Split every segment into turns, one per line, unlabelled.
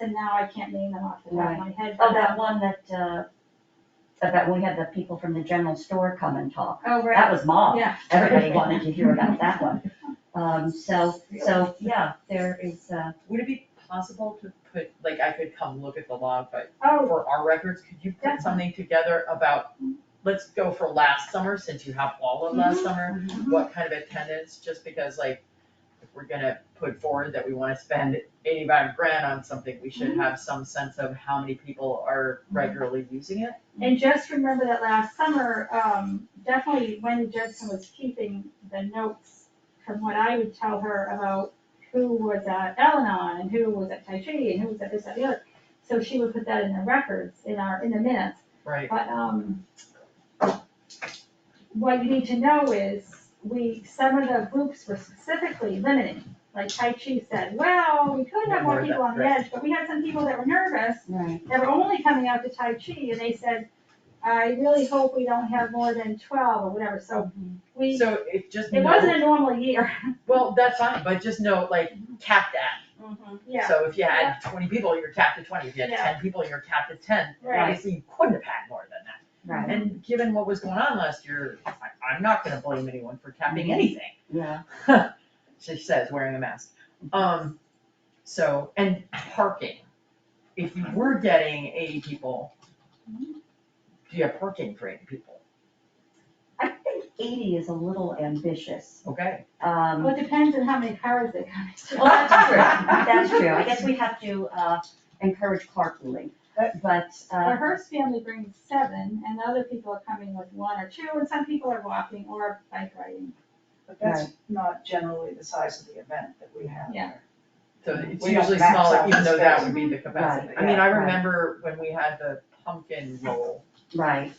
and now I can't name them off the top of my head.
Oh, that one that, uh, about when we had the people from the general store come and talk.
Oh, right,
That was mob.
yeah.
Everybody wanted to hear about that one. Um, so, so, yeah, there is, uh,
Would it be possible to put, like, I could come look at the log, but
Oh,
for our records, could you put
Definitely.
something together about, let's go for last summer, since you have all of last summer,
mhm.
what kind of attendance, just because like, if we're gonna put forward that we wanna spend eighty-five grand on something, we
Mm-hmm.
should have some sense of how many people are regularly using it.
And just remember that last summer, um, definitely when Judson was keeping the notes from what I would tell her about who was at Al-Anon and who was at Tai Chi and who was at this, that, the other. So she would put that in the records, in our, in the minutes.
Right.
But, um, what you need to know is, we, some of the groups were specifically limited. Like Tai Chi said, well, we could have more people on the edge, but we had some people that were nervous,
right,
that were only coming out to Tai Chi, and they said, I really hope we don't have more than twelve or whatever, so we,
So it just
it
know,
wasn't Mm-hmm. a normal year,
well, that's fine, but just know, like, cap that.
yeah,
So if you had twenty people, you're capped at twenty, if you had
Yeah.
ten people, you're capped at ten.
Right.
Obviously, you couldn't have had more than that.
right,
And given what was going on last year, I, I'm not gonna blame anyone for capping
Mm-hmm.
anything,
yeah.
she says, wearing a mask. Um, so, and parking, if you were getting eighty people, do you have parking for eighty people?
I think eighty is a little ambitious.
Okay,
Um,
well, it depends on how many cars they come to.
well, that's true, that's true. I guess we have to, uh, encourage carpooling, but,
The
uh,
Hearst family brings seven, and other people are coming with one or two, and some people are walking or bike riding.
But that's not generally the size of the event that we have.
Yeah.
so it's
We don't
usually
Mm-hmm. max out
smaller,
the
even though that
space.
would be the capacity.
Right,
I mean,
yeah,
I
right.
remember when we had the pumpkin roll,
right,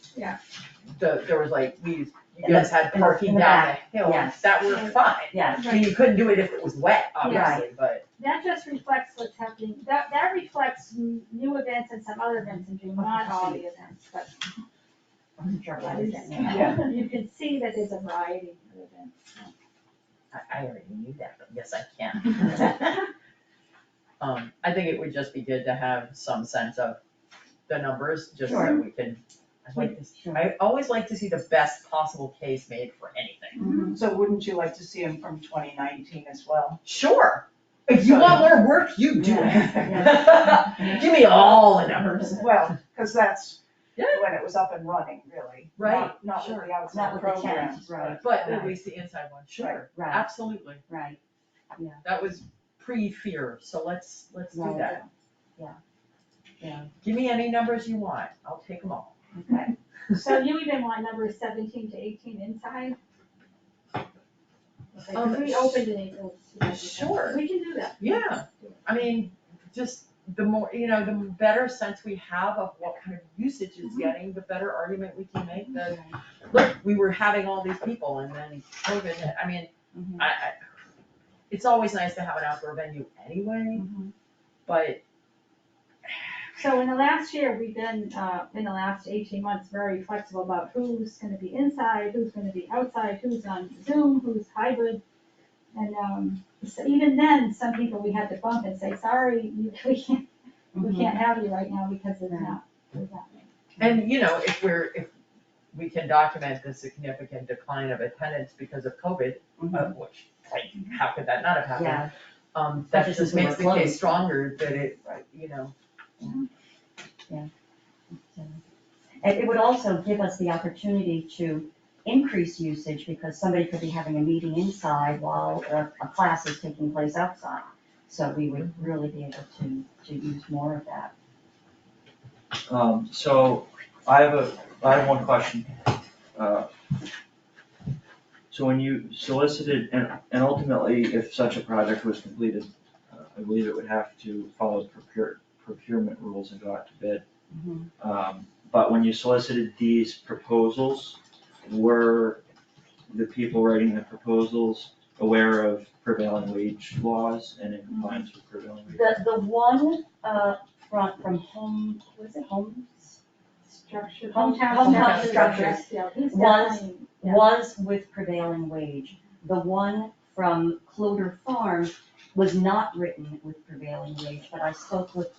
the, there was like, we, you
In the-
guys had
in the- in
parking
the
down the hill,
yes.
that were fine.
yeah,
I mean, you couldn't do it if it was wet, obviously, but,
That just reflects what's happening, that, that reflects n- new events and some other events in June, not all the events, but
I'm sure I was getting that.
Yeah.
you can see that there's a variety of events.
I, I already knew that, but yes, I can. Um, I think it would just be good to have some sense of the numbers, just so
Sure.
we can, I like this,
Sure.
I always like to see the best possible case made for anything.
So wouldn't you like to see them from twenty nineteen as well?
Sure, if you want more work, you do
Yeah.
it. Give me all the numbers.
Well, because that's
Yeah.
when it was up and running, really.
Right,
Not- Not with
sure.
the
Not
outside
with the
programs.
tent, right,
But at least the inside one, sure,
right,
absolutely,
right,
that was pre-fear, so let's, let's do
Right.
that.
Yeah. Yeah.
Give me any numbers you want, I'll take them all.
okay,
So you even want numbers seventeen to eighteen inside? Okay, 'cause
Um,
we opened in April.
sure.
We can do that.
Yeah, I mean, just the more, you know, the better sense we have of what kind of usage it's
Mhm.
getting, the better argument we can make that, look, we were having all these people and then COVID, hit. I mean,
Mhm.
I, I, it's always nice to have an outdoor venue anyway,
Mhm.
but
So in the last year, we've been, uh, in the last eighteen months, very flexible about who's gonna be inside, who's gonna be outside, who's on Zoom, who's hybrid. And, um, so even then, some people we had to bump and say, sorry, you- we can't, we
Mhm.
can't have you right now because it's not. it's not me."
And, you know, if we're, if we can document the significant decline of attendance because of COVID,
Mhm.
of which, like, how could that not have happened?
Yeah,
Um, that
Especially
just
since we
makes
were
the case
closed.
stronger that it, you know,
and it would also give us the opportunity to increase usage because somebody could be having a meeting inside while a, a class is taking place outside. So we would really be able to, to use more of that.
Um, so I have a, I have one question. Uh, So when you solicited, and, and ultimately, if such a project was completed, uh, I believe it would have to follow procure, procurement rules and go out to bid.
Mhm.
Um, but when you solicited these proposals, were the people writing the proposals aware of prevailing wage laws and in compliance with prevailing wage?
The, the one, uh, from, from home, was it homes?
Structure,
Home-
hometown.
hometown
structures,
structures.
yeah, he's
Was-
definitely- Yeah.
was with prevailing wage. The one from Cloder Farm was not written with prevailing wage, but I spoke with